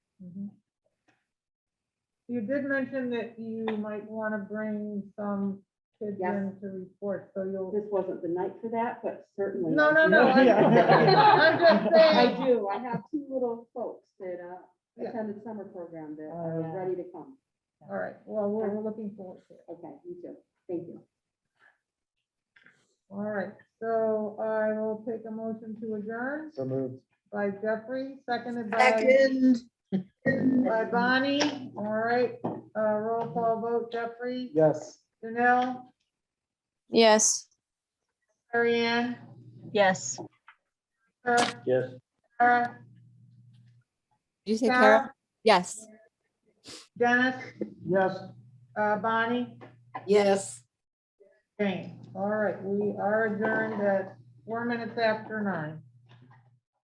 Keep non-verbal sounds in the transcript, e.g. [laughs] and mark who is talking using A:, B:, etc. A: Mm-hmm. You did mention that you might want to bring some kids
B: Yes.
A: in to report, so you'll.
B: This wasn't the night for that, but certainly.
A: No, no,
B: [laughs]
A: no. I- I'm just
B: I
A: saying,
B: do. I have two little folks that uh,
A: Yeah.
B: attended summer program that
C: Oh, yeah.
B: are ready to come.
A: all right, well, we're, we're looking forward to it.
B: Okay, you too. Thank you.
A: All right, so I will take a motion to adjourn
C: So moved.
A: by Jeffrey, seconded by,
D: Second,
A: by Bonnie. All right, uh, roll call vote, Jeffrey,
C: Yes.
A: Janelle,
E: Yes.
A: Marianne,
D: yes.
A: Kara,
C: Yes.
A: Kara,
E: Did you say Kara?
A: Kara,
E: Yes.
A: Dennis,
C: Yes.
A: uh, Bonnie.
D: Yes.
A: Jane, all right, we are adjourned at four minutes after nine.